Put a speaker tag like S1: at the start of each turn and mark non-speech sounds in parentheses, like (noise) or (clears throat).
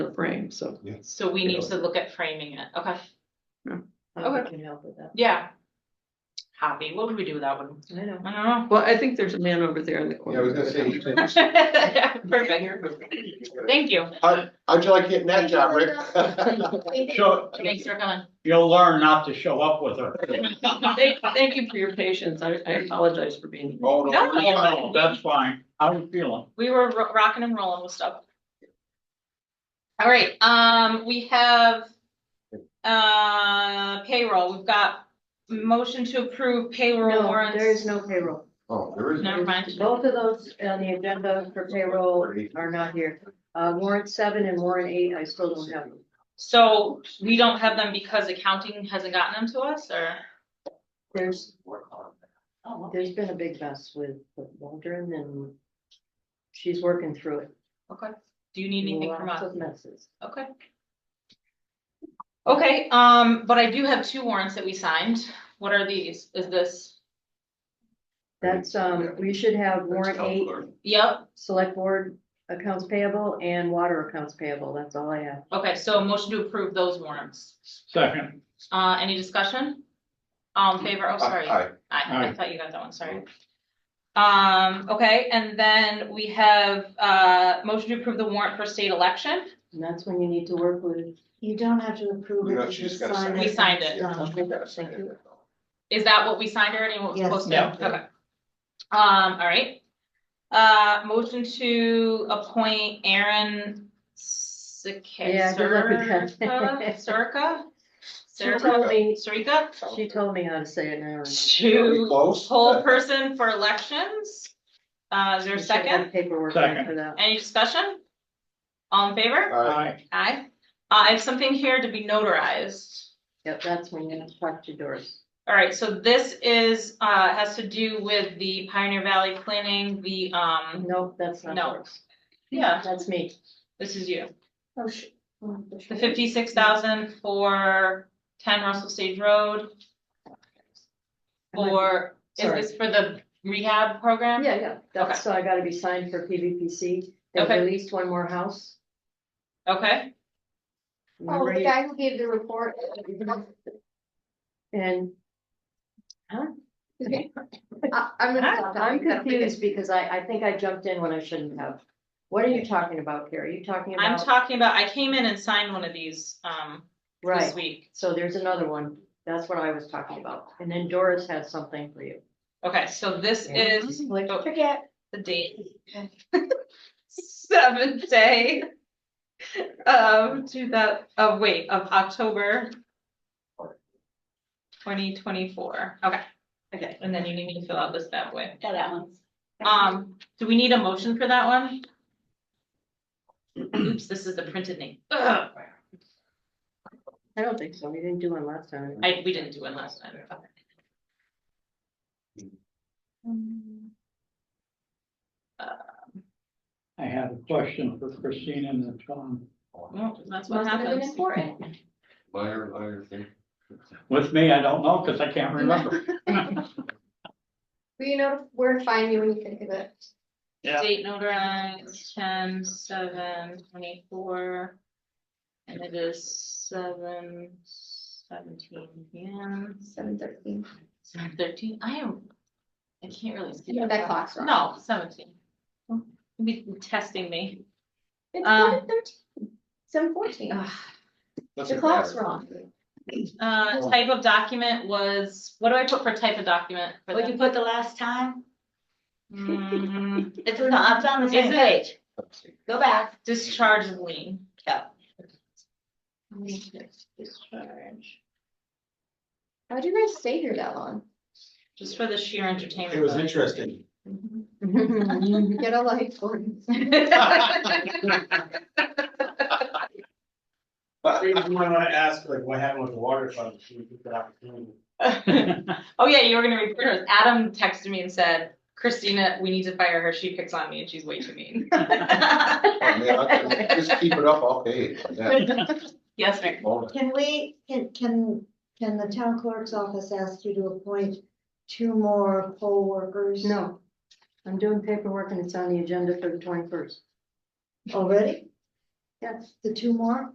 S1: the frame, so.
S2: So we need to look at framing it, okay,
S3: I can help with that.
S2: yeah. Happy, what would we do with that one?
S3: I know.
S2: I (laughs) don't
S1: Well, I think there's a man over there in the
S4: Yeah, I
S1: corner.
S4: was gonna say.
S2: know. Perfect, thank you,
S4: How, how'd you like getting that job, Rick? (laughs) Oh,
S5: Show,
S2: thanks for coming.
S5: you'll learn not to show up with her.
S1: Thank, thank you for your patience. I, I apologize for being.
S4: Oh,
S2: No.
S4: no.
S5: No, that's fine. How you feeling?
S2: (laughs) We were ro- rocking and rolling with stuff. All right, um, we have uh payroll, we've got motion to approve payroll
S3: No,
S2: warrants.
S3: there is no payroll.
S4: Oh, there is.
S2: Never mind.
S3: Both of those on the agenda for payroll are not here. Uh, warrant seven and warrant eight, I still don't have them.
S2: So we don't have them because accounting hasn't gotten them to us, or?
S3: There's, there's been a big mess with with Waldron and she's working through it.
S2: Okay, do you need anything from
S3: Lots
S2: us?
S3: of messes.
S2: Okay. Okay, um, but I do have two warrants that we signed. What are these? Is this,
S3: That's, um, we should have warrant eight,
S2: yep,
S3: select board accounts payable and water accounts payable. That's all I have.
S2: okay, so a motion to approve those warrants.
S5: Second,
S2: Uh, any discussion? All in favor? Oh, sorry.
S4: Hi,
S2: I, I
S5: Aye.
S2: thought you got that one, sorry. Um, okay, and then we have, uh, motion to approve the warrant for state election.
S3: And that's when you need to work with.
S6: You don't have to approve
S4: You
S6: it.
S4: know,
S6: you
S4: she just
S6: just
S4: gotta
S6: sign
S4: sign
S2: it. We signed it.
S6: Done.
S4: You gotta sign
S6: Thank you.
S4: it.
S2: Is that what we signed already, what was
S6: Yes.
S2: posted?
S5: Yeah.
S2: Okay. Um, all right. Uh, motion to appoint Aaron
S3: Yeah, good luck with
S2: Sikasarka,
S3: that. (laughs)
S2: Sirka?
S3: She
S2: Sirka,
S3: told me,
S2: Sarika?
S3: she told me how to say it now. I remember.
S4: Are we
S2: To
S4: close?
S2: poll person for elections. Uh, is there a
S3: We should have
S2: second?
S3: Paperwork
S5: Second.
S3: for that.
S2: Any discussion? All in favor?
S4: Aye.
S5: aye,
S2: Aye. Uh, I have something here to be notarized.
S3: Yep, that's when you talk to Doris.
S2: All right, so this is, uh, has to do with the Pioneer Valley planning, the, um,
S3: Nope, that's not
S2: No.
S3: Doris.
S2: yeah,
S3: That's me.
S2: this is you.
S6: Oh, sh- oh, the sh-
S2: The fifty-six thousand for ten Russell Stage Road for, is
S3: Sorry.
S2: this for the rehab program?
S3: Yeah, yeah, that's, so I gotta be signed for PVPC. They
S2: Okay.
S3: released one more house.
S2: Okay,
S6: Oh,
S3: Remember
S6: the
S3: you-
S6: guy who gave the report.
S3: And
S6: I- I'm gonna stop.
S3: I'm confused because I, I think I jumped in when I shouldn't have. What are you talking about, Carrie? Are you talking
S2: I'm
S3: about,
S2: talking about, I came in and signed one of these, um,
S3: right,
S2: this week.
S3: so there's another one. That's what I was talking about. And then Doris has something for you.
S2: Okay, so this
S3: Yeah.
S2: is
S3: Like,
S2: oh,
S6: Forget.
S2: the date. Seventh day of two thou- of wait, of October twenty twenty-four. Okay,
S3: Okay.
S2: and then you need me to fill out this that way.
S6: Got that one.
S2: Um, do we need a motion for that (clears throat) one? Oops, this is the printed name. Ugh,
S3: I don't think so. We didn't do one last time.
S2: I, we didn't do one last time.
S5: I have a question for Christina and Tom.
S2: Well, that's what
S6: Must have been
S2: happens.
S6: important.
S4: Liar, liar, thing.
S5: With me, I don't know, because I can't remember.
S6: Well, you know where to find me when you think of it.
S5: Yeah.
S2: Date notarized ten, seven, twenty-four. And it is seven, seventeen, p.m.
S6: Seven thirteen.
S2: seven thirteen, I am. I can't really. see
S6: You know that clock's wrong.
S2: No, seventeen. You'll Be testing me.
S6: It's
S2: Um,
S6: seven thirteen. Seven fourteen.
S2: Ugh.
S4: Doesn't
S6: The clock's
S4: matter.
S6: wrong.
S2: Uh, type of document was, what do I put for type of document? for
S7: What'd you
S2: the-
S7: put the last time?
S2: (laughs) Mm,
S7: It's not, it's on the same
S2: Is it?
S7: page. Go back.
S2: Discharge of lien.
S7: Yeah.
S2: Discharge.
S6: How'd you guys stay here
S2: (laughs)
S6: that long?
S2: Just for the sheer entertainment.
S4: It was (laughs)
S2: value.
S4: interesting.
S6: (laughs) Get a life, Gordon.
S4: Oh,
S8: You might wanna ask like what happened with the water fund, should we get that opportunity?
S4: (laughs)
S2: (laughs) Oh, yeah, you were gonna report us. Adam texted me and said, Christina, we need to fire her. She picks on me and she's way too mean. (laughs)
S4: I mean, I- Just keep it up, I'll pay. it. Yeah.
S2: Yes, ma'am.
S4: Bonus.
S7: Can we, can, can, can the town clerk's office ask you to appoint two more poll workers?
S3: No, I'm doing paperwork and it's on the agenda for the twenty-first.
S7: Already?
S6: That's the two more?